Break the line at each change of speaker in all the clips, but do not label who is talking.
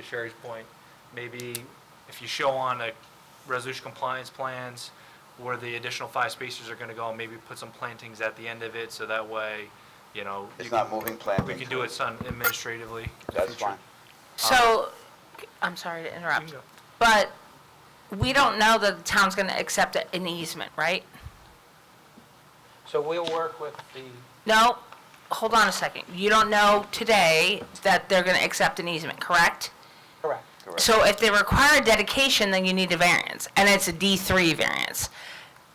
To Sherry's point, maybe if you show on a resolution compliance plans where the additional five spaces are gonna go, maybe put some plantings at the end of it, so that way, you know. you
It's
can-
not moving plantings.
We can do it some administratively.
That's fine.
So, I'm sorry to interrupt,
Um, You can go.
but we don't know that the town's going to accept an easement, right?
So we'll work with the,
No, hold on a second. You don't know today that they're going to accept an easement, correct?
correct.
Correct.
So if they require dedication, then you need a variance, and it's a D3 variance,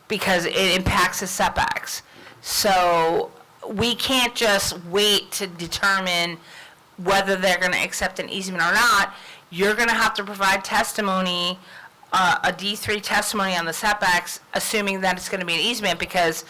because it impacts the setbacks. So we can't just wait to determine whether they're gonna accept an easement or not. You're gonna have to provide testimony, uh, a D3 testimony on the setbacks, assuming that it's gonna be an easement, because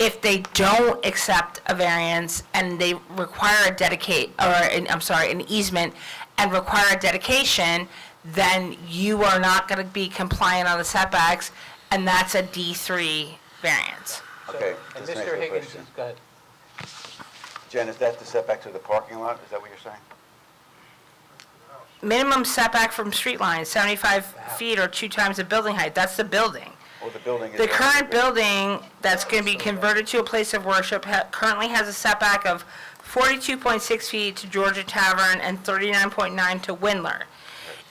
if they don't accept a variance and they require a dedicate, or, an- I'm sorry, an easement, and require a dedication, then you are not going to be compliant on the setbacks, and that's a D3 variance.
So-
Okay,
And
this answers
Mr.
the
Higgins
question.
has got,
Jen, is that the setback to the parking lot? Is that what you're saying?
Minimum setback from street line, 75 feet or two times the building height, that's the building.
Or the building is...
The current building that's going to be converted to a place of worship ha- currently has a setback of 42.6 feet to Georgia Tavern and 39.9 to Windler.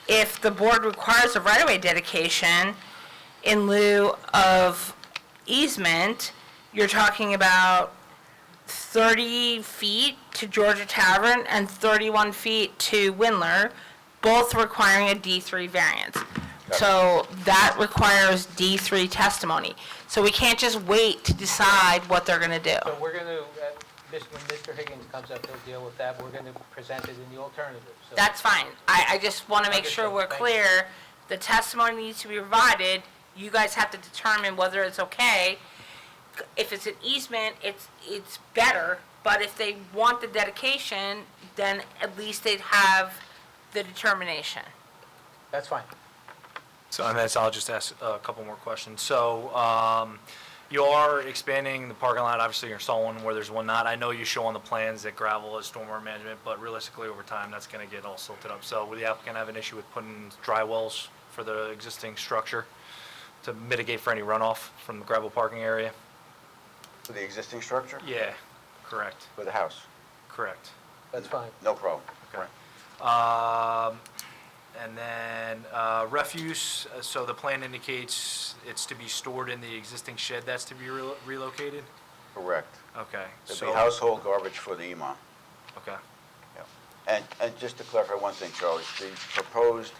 If the board requires a right-of-way dedication in lieu of easement, you're talking about 30 feet to Georgia Tavern and 31 feet to Windler, both requiring a D3 variance. So that requires D3 testimony. So we can't just wait to decide what they're going to do.
so we're going to, when Mr. Higgins comes up, he'll deal with that. We're going to present it in the alternative. So
That's fine. I, I just want to make sure we're
Understood. Thank you.
clear. The testimony needs to be provided. You guys have to determine whether it's okay. If it's an easement, it's, it's better, but if they want the dedication, then at least they'd have the determination.
That's fine.
So on that, so I'll just ask a couple more questions. So um, you are expanding the parking lot, obviously you're installing one where there's one not. I know you show on the plans that gravel is stormwater management, but realistically, over time, that's going to get all silted up. So would the applicant have an issue with putting dry wells for the existing structure to mitigate for any runoff from the gravel parking area?
For the existing structure?
Yeah, correct,
For the house?
correct.
That's fine.
No problem.
Okay. Um, And then uh, refuse, uh, so the plan indicates it's to be stored in the existing shed that's to be relo- relocated?
Correct.
Okay,
It'll
so,
be household garbage for the E imam.
okay,
Yeah. And, and just to clarify one thing, Charlie, the proposed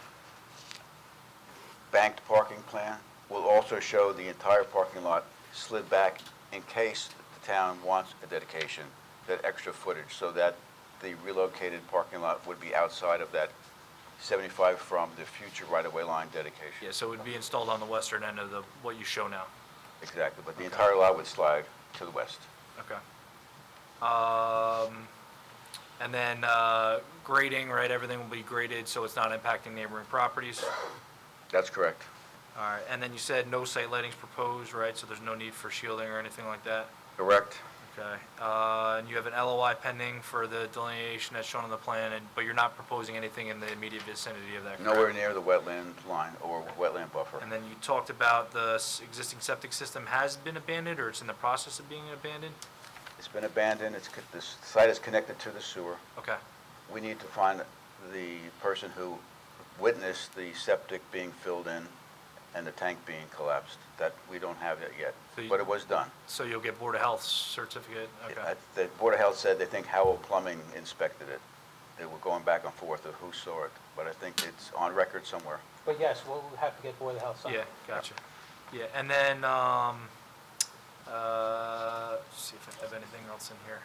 banked parking plan will also show the entire parking lot slid back in case the town wants a dedication, that extra footage, so that the relocated parking lot would be outside of that 75 from the future right-of-way line dedication.
yeah, so it would be installed on the western end of the, what you show now,
Exactly, but the entire lot would slide to the west.
okay. Um, And then uh, grading, right, everything will be graded, so it's not impacting neighboring properties?
That's correct.
All right, and then you said no site lighting's proposed, right, so there's no need for shielding or anything like that?
Correct.
Okay, uh, and you have an LOI pending for the delineation that's shown on the plan, and, but you're not proposing anything in the immediate vicinity of that, correct?
Nowhere near the wetland line or wetland buffer.
And then you talked about the s- existing septic system has been abandoned, or it's in the process of being abandoned?
It's been abandoned, it's, co- the s- site is connected to the sewer.
Okay,
We need to find the person who witnessed the septic being filled in and the tank being collapsed. That, we don't have that yet,
So you-
but it was done.
so you'll get Board of Health certificate, okay.
Uh, The Board of Health said they think Howell Plumbing inspected it. They were going back and forth of who saw it, but I think it's on record somewhere.
But yes, we'll have to get Board of Health signed.
Yeah, gotcha. Yeah, and then, um, uh, let's see if I have anything else in here.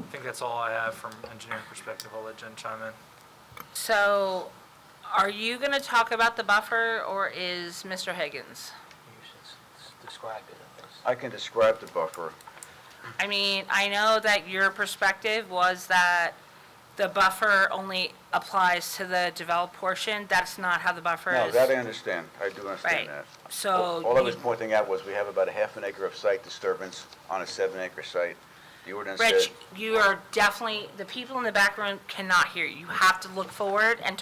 I think that's all I have from engineering perspective, I'll let Jen chime in.
So are you going to talk about the buffer, or is Mr. Higgins?
You should s- s- describe it at least.
I can describe the buffer.
I mean, I know that your perspective was that the buffer only applies to the developed portion. That's not how the buffer
No,
is.
that I understand, I do
Right.
understand that.
So
All I was
you-
pointing out was we have about a half an acre of site disturbance on a seven acre site. The ordinance said.
Rich, you are definitely, the people in the back room cannot hear you. You have to look forward and